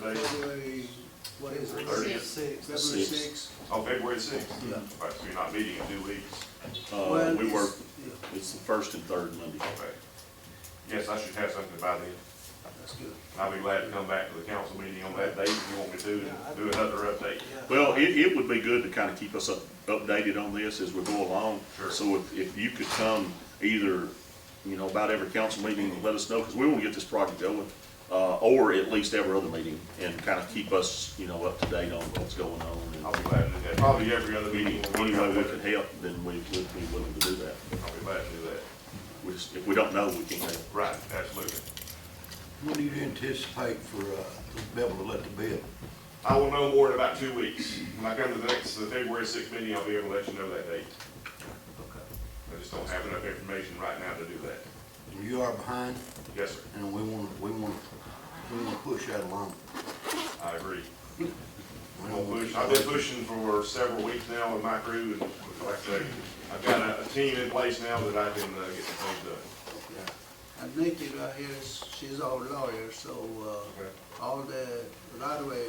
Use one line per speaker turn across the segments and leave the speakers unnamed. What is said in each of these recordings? Monday,
February, what is it?
Thirtieth.
Six, February
Six.
sixth.
oh, February sixth,
Yeah.
right, so you're not meeting in two weeks,
Well,
Uh, we
it's-
work,
Yeah,
it's the first and third Monday.
okay. Yes, I should have something by then,
that's good.
and I'll be glad to come back to the council meeting on that date if you want me to, and do another update.
Yeah.
Well, it, it would be good to kind of keep us up, updated on this as we go along.
Sure.
So if, if you could come either, you know, about every council meeting and let us know, because we want to get this project going. Uh, or at least every other meeting and kind of keep us, you know, up to date on what's going on.
I'll
and
be glad to do that, probably every other
Any,
meeting. we'll
any way
work
we
out
can
better.
help, then we would be willing to do that.
I'll be glad to do that,
We just, if we don't know, we can't help.
right, absolutely.
When do you anticipate for, uh, to be able to let the bid?
I will know more in about two weeks. When I come to the next, the February sixth meeting, I'll be able to let you know that date. I just don't have enough information right now to do that.
You are behind,
Yes, sir,
and we want, we want, we want to push that along.
I agree.
We
I'm
don't
gonna
want
push,
to-
I've been pushing for several weeks now with my crew, and like I say, I've got a, a team in place now that I can, uh, get the things done.
Yeah. And Nikki right here, is- she's our lawyer, so, uh,
Okay.
all the right away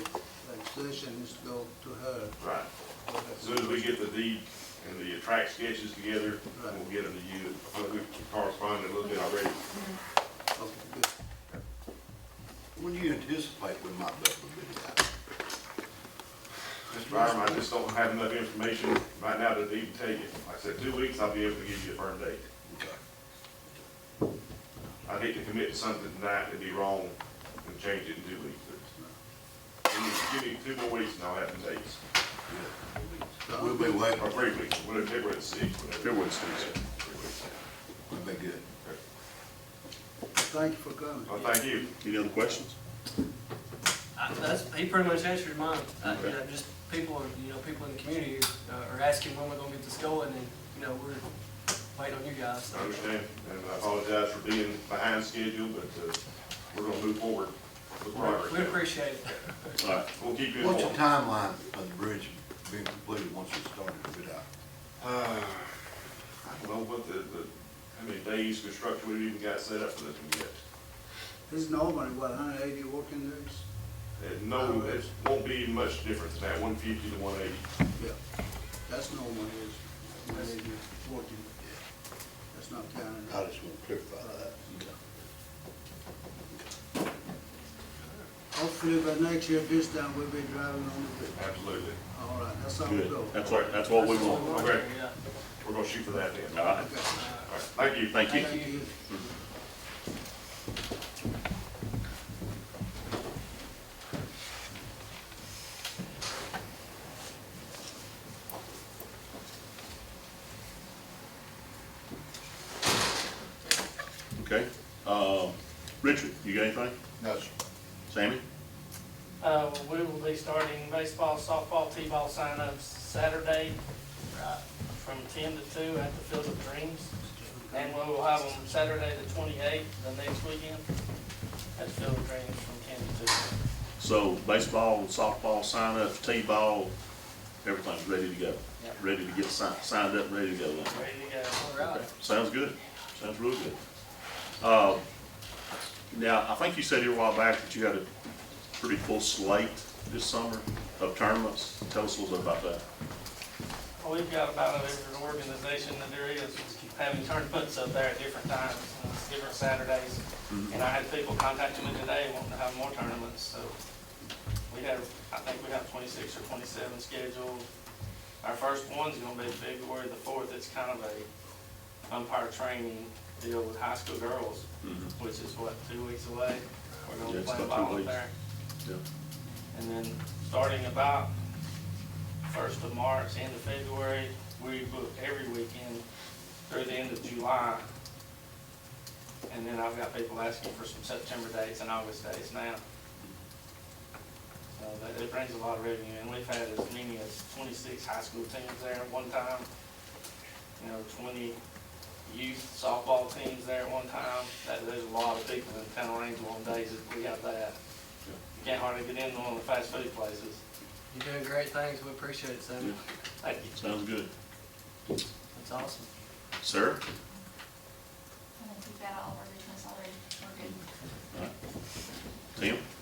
decisions go to her.
Right, as soon as we get the deed and the track sketches together, we'll get them to you, I think we've corresponded a little bit already.
Okay, good.
When do you anticipate we might be able to bid it out?
Mr. Byram, I just don't have enough information right now to even tell you. Like I said, two weeks, I'll be able to give you a firm date.
Okay.
I hate to commit to something tonight and be wrong and change it in two weeks. But Give me, give me two more weeks and I'll have the dates,
So,
We'll be waiting,
or three weeks, whatever, February the sixth, whatever.
February the sixth.
Yeah, three weeks.
we'll be good.
Okay.
Thank you for coming.
Well, thank you.
Any other questions?
I- That's, he pretty much answered mine. I, you know, just people, are- you know, people in the community uh, are asking when we're gonna get this going, and, you know, we're waiting on you guys, so.
I understand, and I apologize for being behind schedule, but, uh, we're gonna move forward with progress.
We appreciate it.
All right,
We'll keep you
What's the
informed.
timeline of the bridge being completed once it's started to bid out?
Uh, I don't know what the, the, how many days construction we've even got set up for this one yet.
It's normally, what, hundred eighty working days?
And no, it won't be much different than that, one fifty to one eighty.
Yeah. That's normal, is one eighty working. That's not counting.
I just want to clarify that.
Hopefully by next year, this time we'll be driving on the bridge.
Absolutely.
All right, that's how we
good.
go.
That's what, that's what we
That's
want.
we're
Okay.
doing, yeah.
We're gonna shoot for that then.
All
All right,
Okay.
right,
thank you.
thank you.
Thank you.
Okay, uh, Richard, you got anything?
No, sir.
Sammy?
Uh, we will be starting baseball, softball, t-ball sign-ups Saturday, uh, from ten to two at the Field of Dreams. And we will have them Saturday the twenty-eighth, the next weekend, at the Field of Dreams from ten to two.
So baseball, softball, sign-ups, t-ball, everything's ready to go.
Yep.
Ready to get signed, signed up, ready to go. then.
Ready to go.
All right.
Okay, Sounds good. Sounds real good. Uh, now, I think you said here a while back that you had a pretty full slate this summer of tournaments. Tell us a little bit about that.
Well, We've got about every organization that there is having tournaments up there at different times, and it's different Saturdays. And I had people contacting me today wanting to have more tournaments, so we have, I think we have twenty-six or twenty-seven scheduled. Our first one's gonna be February the fourth. It's kind of a umpire training deal with high school girls,
Mhm.
which is what, two weeks away? We're
Yeah,
gonna be
it's
playing
about two
ball up
weeks.
there.
Yeah.
And then, starting about first of March, end of February, we book every weekend through the end of July. And then I've got people asking for some September dates and August dates now. So that, it brings a lot of revenue, and we've had as many as twenty-six high school teams there at one time. You know, twenty youth softball teams there at one time. That, there's a lot of people in town Range on days that we have that. You can't hardly get in one of the fast food places.
You're doing great things. We appreciate it, Sammy.
Thank you.
Sounds good.
That's awesome.
Sarah?
I think we've got all of our business already, we're good.
Tim?